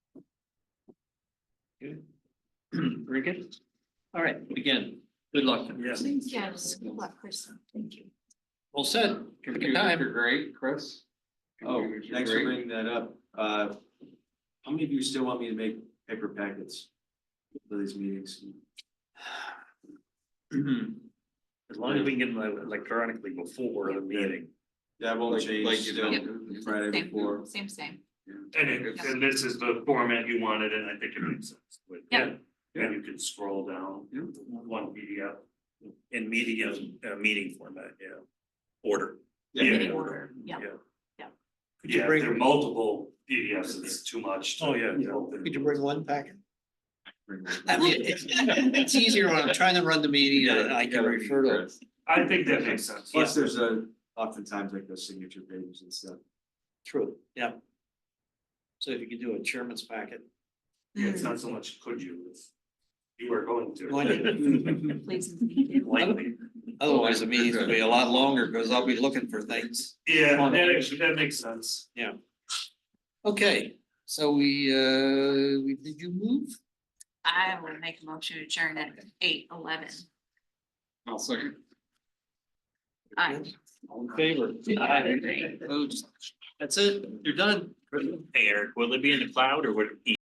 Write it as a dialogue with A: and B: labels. A: Good. Very good. All right, again, good luck.
B: Yes.
C: Yes, good luck, Kristen. Thank you.
A: Well said. Good
D: Computers
A: time.
D: are great, Chris.
B: Oh,
D: Computers are
B: thanks for
D: great.
B: bringing that up. Uh, how many of you still want me to make paper packets for these meetings?
E: As long as we can get them uh, electronically before the meeting.
B: That won't
D: Like-
B: change
D: like you
B: still
D: don't-
B: Friday before.
C: Same, same, same.
E: And it, and this is the format you wanted, and I think it makes sense. Like,
C: Yeah.
E: And you can scroll down
D: Yeah.
E: one PDF. In media, uh, meeting format, yeah. Order.
B: Yeah.
E: Yeah. order.
C: Yeah.
A: you
E: Yeah,
A: bring-
E: if there are multiple PDFs, it's too much. Oh, yeah.
A: Could you bring one packet?
B: Bring
A: I
B: it.
A: mean, it's, it's easier when I'm trying to run the meeting and I can refer to. it.
E: I think that makes sense.
B: Plus, there's a, oftentimes like those signature pages and stuff.
A: True, yeah. So if you could do a chairman's packet,
E: Yeah, It's not so much could you, it's you are going to.
A: Going
C: Mm, Please.
E: Likely.
A: otherwise the meeting will be a lot longer because I'll be looking for things.
E: Yeah, that actually, that makes sense.
A: Okay, so we, uh, we, did you move?
C: I will make a motion to adjourn at eight eleven.
D: I'll second.
C: Aye.
A: All in favor? Opposed? That's it, you're done.
F: Hey Eric, will it be in the cloud or would it be